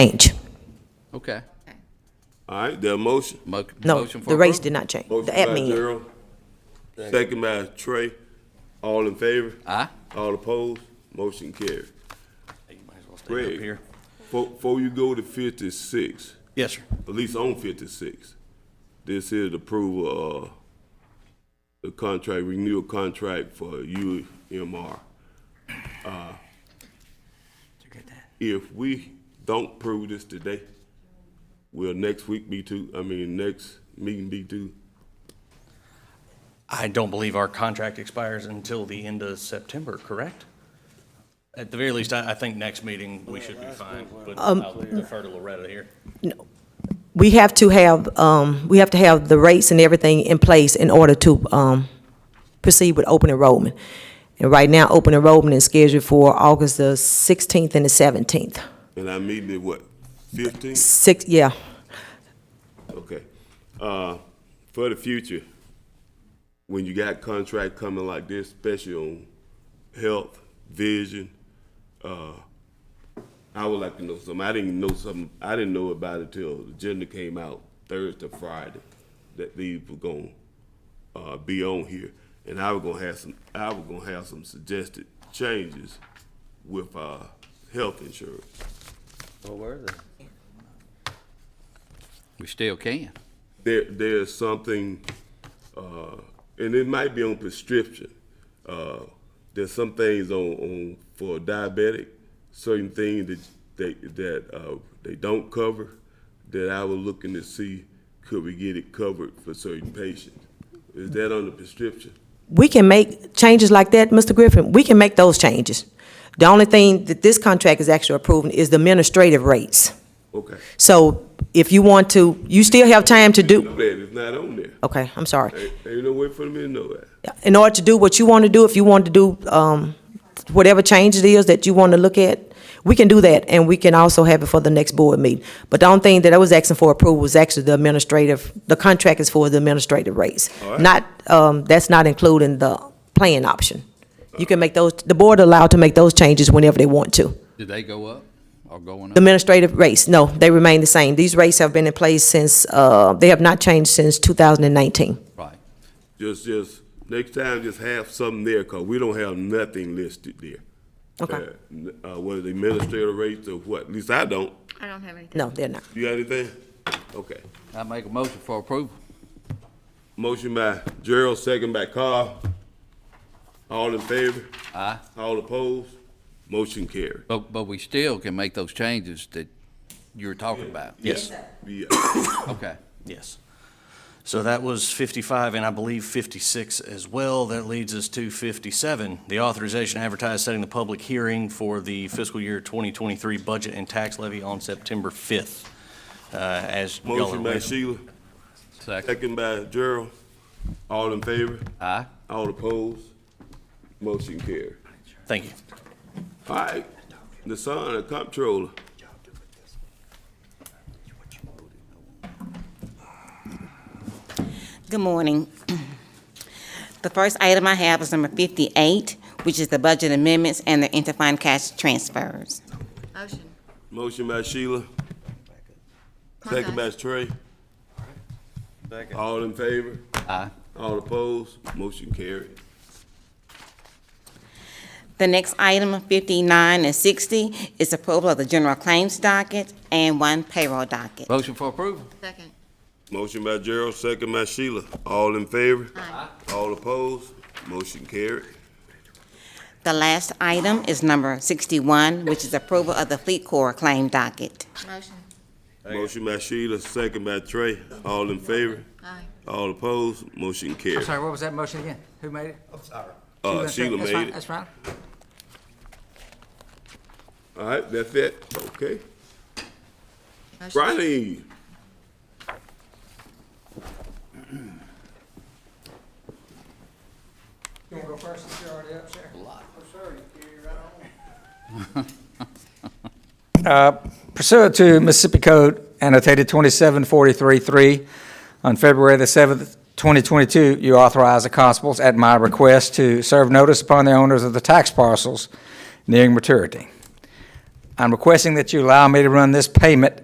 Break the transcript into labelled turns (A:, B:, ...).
A: change.
B: Okay.
C: All right, the motion.
B: Mo-
A: No,
B: motion for
A: the rates
B: approval?
A: did not change. The
C: Motion by
A: admin.
C: Gerald, second by Trey. All in favor?
B: Aye.
C: All opposed? Motion carried.
B: You might as well stay up
C: Greg,
B: here.
C: fo- before you go to fifty-six,
D: Yes, sir.
C: at least on fifty-six, this is the approval of the contract, renewal contract for UMR. Uh, If we don't prove this today, will next week be too, I mean, next meeting be too?
D: I don't believe our contract expires until the end of September, correct? At the very least, I, I think next meeting, we should be fine, but I'll defer to Loretta here.
A: We have to have, um, we have to have the rates and everything in place in order to, um, proceed with open enrollment. And right now, open enrollment is scheduled for August the sixteenth and the seventeenth.
C: And I meeting is what, fifteen?
A: Six, yeah.
C: Okay. Uh, for the future, when you got contract coming like this, especially on health, vision, uh, I would like to know something. I didn't know something, I didn't know about it till the agenda came out Thursday, Friday, that these were gonna, uh, be on here. And I was gonna have some, I was gonna have some suggested changes with, uh, health insurance.
B: We still can.
C: there there's something, uh, and it might be on prescription. Uh, there's some things on, on for diabetic, certain things that they that uh, they don't cover. That I was looking to see could we get it covered for certain patients. Is that on the prescription?
A: We can make changes like that, Mr. Griffin. We can make those changes. The only thing that this contract is actually approving is the administrative rates.
C: Okay.
A: So if you want to, you still have time to do,
C: Know that it's not on there.
A: okay, I'm sorry.
C: Ain't, ain't no way for me to know that.
A: in order to do what you want to do, if you want to do, um, whatever change it is that you want to look at, we can do that, and we can also have it for the next board meeting. But the only thing that I was asking for approval was actually the administrative, the contract is for the administrative rates.
C: All right.
A: Not, um, that's not including the plan option. You can make those, the board allowed to make those changes whenever they want to.
B: Did they go up or going
A: The
B: up?
A: administrative rates, no, they remain the same. These rates have been in place since, uh, they have not changed since two thousand and nineteen.
B: Right.
C: Just, just, next time, just have something there, cause we don't have nothing listed there.
A: Okay.
C: Uh, Uh, whether the administrative rates or what, at least I don't.
E: I don't have anything.
A: No, they're not.
C: You got anything? Okay.
B: I make a motion for approval.
C: Motion by Gerald, second by Carl. All in favor?
B: Aye.
C: All opposed? Motion carried.
B: But, but we still can make those changes that you were talking about.
D: Yes,
C: Yeah.
B: Okay.
D: yes. So that was 55 and I believe 56 as well. That leads us to 57, the authorization to advertise setting the public hearing for the fiscal year 2023 budget and tax levy on September 5th. Uh, As y'all are
C: Motion by
D: aware,
C: Sheila,
B: Second.
C: second by Gerald. All in favor?
B: Aye.
C: All opposed? Motion carried.
D: thank you.
C: All right, the son, the comptroller.
F: Good morning. The first item I have is number 58, which is the budget amendments and the interfund cash transfers.
E: Motion.
C: Motion by Sheila, second by Trey. All in favor?
B: Aye.
C: All opposed? Motion carried.
F: The next item, 59 and 60, is approval of the general claims docket and one payroll docket.
B: Motion for approval.
E: Second.
C: Motion by Gerald, second by Sheila. All in favor?
E: Aye.
C: All opposed? Motion carried.
F: The last item is number 61, which is approval of the fleet corps claim docket.
E: Motion.
C: Motion by Sheila, second by Trey. All in favor?
E: Aye.
C: All opposed? Motion
G: I'm
C: carried.
G: sorry, what was that motion again? Who made it?
C: Uh,
G: That's right,
C: Sheila
G: that's right,
C: made it.
G: That's right.
C: All right, that's it. Okay.
E: Motion.
C: Ronnie,
G: You wanna go first, since you're already up, sir?
H: Uh, Pursuant to Mississippi Code annotated 27433, on February the 7th, 2022, you authorized the constables, at my request, to serve notice upon the owners of the tax parcels nearing maturity. I'm requesting that you allow me to run this payment